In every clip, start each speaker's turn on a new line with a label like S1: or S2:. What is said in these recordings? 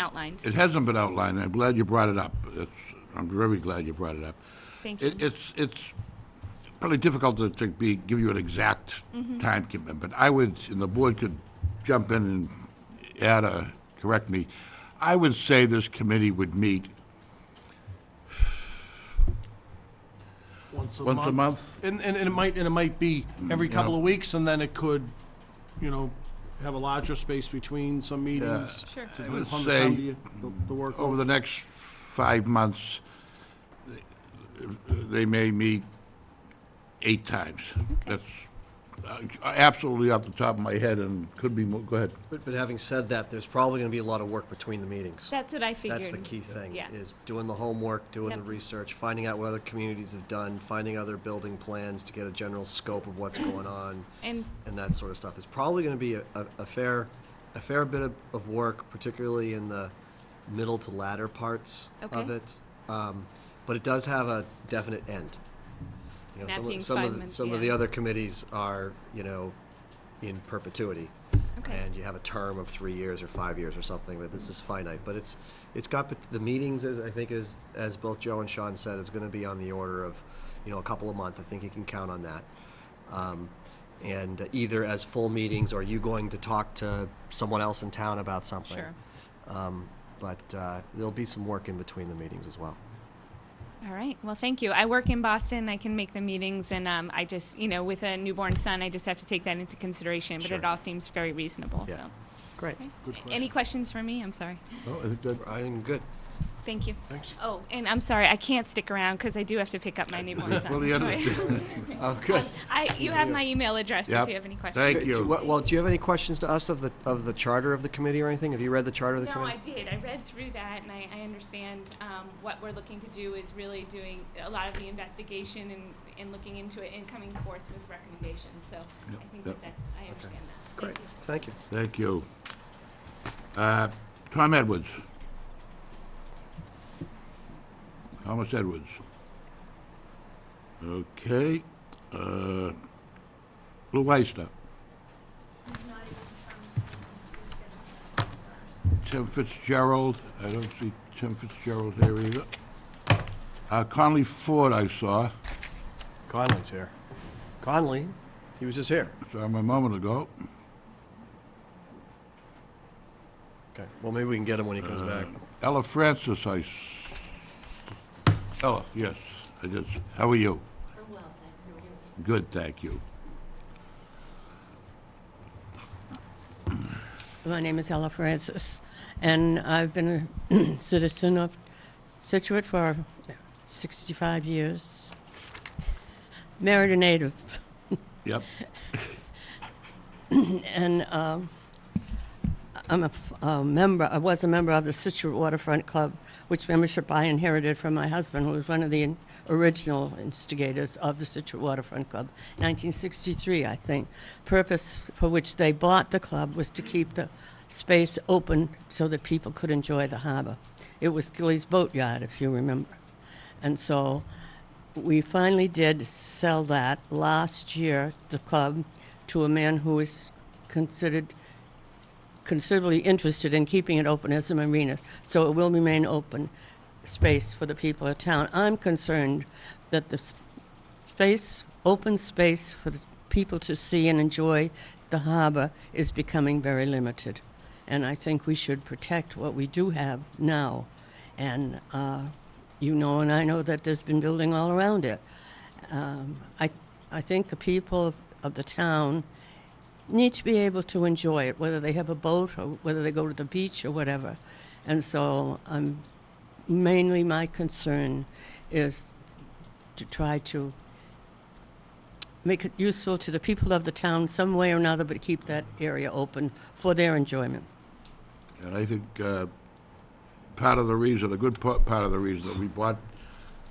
S1: outlined.
S2: It hasn't been outlined, I'm glad you brought it up. It's, I'm very glad you brought it up.
S1: Thank
S2: It,
S1: you.
S2: it's, it's probably difficult to, to be, give you an exact
S1: Mm-hmm.
S2: time commitment, but I would, and the board could jump in and add a, correct me. I would say this committee would meet
S3: Once a
S2: Once a
S3: month.
S2: month? Mm,
S3: And, and, and it might, and it might be every couple of weeks, and then it could, you know, have a larger space between some meetings.
S1: Sure.
S3: To
S2: I would
S3: pump the time
S2: say
S3: to you- the, the work.
S2: over the next five months, they may meet eight times. That's uh, absolutely off the top of my head and could be, more. go ahead.
S4: But, but having said that, there's probably gonna be a lot of work between the meetings.
S1: That's what I figured.
S4: That's the key thing,
S1: Yeah.
S4: is doing the homework, doing the
S1: Yep.
S4: research, finding out what other communities have done, finding other building plans to get a general scope of what's going on,
S1: And
S4: and that sort of stuff. It's probably gonna be a, a a fair, a fair bit of, of work, particularly in the middle to latter parts of
S1: Okay.
S4: it. Um, But it does have a definite end. You know,
S1: That
S4: some
S1: being
S4: of, some
S1: five
S4: of, the-
S1: months,
S4: some of the
S1: yeah.
S4: other committees are, you know, in perpetuity.
S1: Okay.
S4: And you have a term of three years or five years or something, but this is finite. But it's, it's got, pot- the meetings is, I think is, as both Joe and Sean said, is gonna be on the order of, you know, a couple a month. I think you can count on that. Um, And either as full meetings or you going to talk to someone else in town about something.
S1: Sure.
S4: Um, But, uh, there'll be some work in between the meetings as well.
S1: All right. Well, thank you. I work in Boston. I can make the meetings, and um, I just, you know, with a newborn son, I just have to take that into consideration. But it
S4: Sure.
S1: all seems very reasonable.
S4: Yeah.
S1: So,
S4: Great.
S3: Good
S1: any
S3: question.
S1: questions for me? I'm sorry.
S2: No, I think that,
S4: I think good.
S1: Thank you.
S3: Thanks.
S1: Oh, and I'm sorry. I can't stick around because I do have to pick up my newborn son.
S2: fully understand.
S4: Oh, good.
S1: I, you have my email address
S2: Yep.
S1: if you have any questions.
S2: Thank you.
S4: Well, well, do you have any questions to us of the, of the charter of the committee or anything? Have you read the charter of the
S1: No, I
S4: committee?
S1: did. I read through that, and I, I understand um, what we're looking to do is really doing a lot of the investigation and, and looking into it and coming forth with recommendations. So I think
S2: yep.
S1: that that's, I understand that. Thank
S4: Great,
S1: you.
S4: thank you.
S2: Thank you. Uh, Tom Edwards. Thomas Edwards. Okay. uh, Lou Weister. Tim Fitzgerald, I don't see Tim Fitzgerald here either. Uh, Conley Ford I saw,
S4: Conley's here. Conley, he was just here.
S2: saw him a moment ago.
S4: Okay, well, maybe we can get him when he
S2: Uh,
S4: comes back.
S2: Ella Francis, I, s- Ella, yes, I just, how are you? Good, thank you.
S5: My name is Ella Francis, and I've been a citizen of Situate for 65 years. Married a native,
S2: Yep,
S5: and um, I'm a, f- a member, I was a member of the Situate Waterfront Club, which membership I inherited from my husband, who was one of the in- original instigators of the Situate Waterfront Club, 1963, I think. Purpose for which they bought the club was to keep the space open so that people could enjoy the harbor. It was Gilly's Boatyard, if you remember. And so we finally did sell that last year, the club, to a man who is considered considerably interested in keeping it open as a marina, so it will remain open space for the people of town. I'm concerned that the s- space, open space for the people to see and enjoy the harbor is becoming very limited. And I think we should protect what we do have now. And uh, you know, and I know that there's been building all around it. Um, I, I think the people of, of the town need to be able to enjoy it, whether they have a boat or whether they go to the beach or whatever. And so I'm mainly my concern is to try to make it useful to the people of the town some way or another, but keep that area open for their enjoyment.
S2: and I think uh, part of the reason, a good pa- part of the reason that we bought,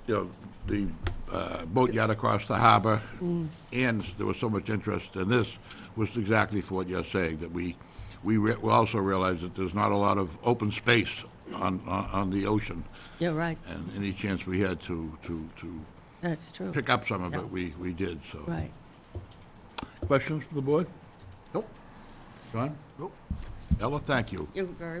S2: you know, the uh, boatyard across the harbor,
S5: Mm.
S2: and there was so much interest in this, was exactly for what you're saying, that we, we re- we also realized that there's not a lot of open space on, on on the ocean,
S5: You're right.
S2: and any chance we had to, to, to
S5: That's true.
S2: pick up some of
S5: Yeah.
S2: it, we, we did, so.
S5: Right.
S2: Questions from the board?
S4: Nope.
S2: John?
S3: Nope.
S2: Ella, thank you.
S5: You're very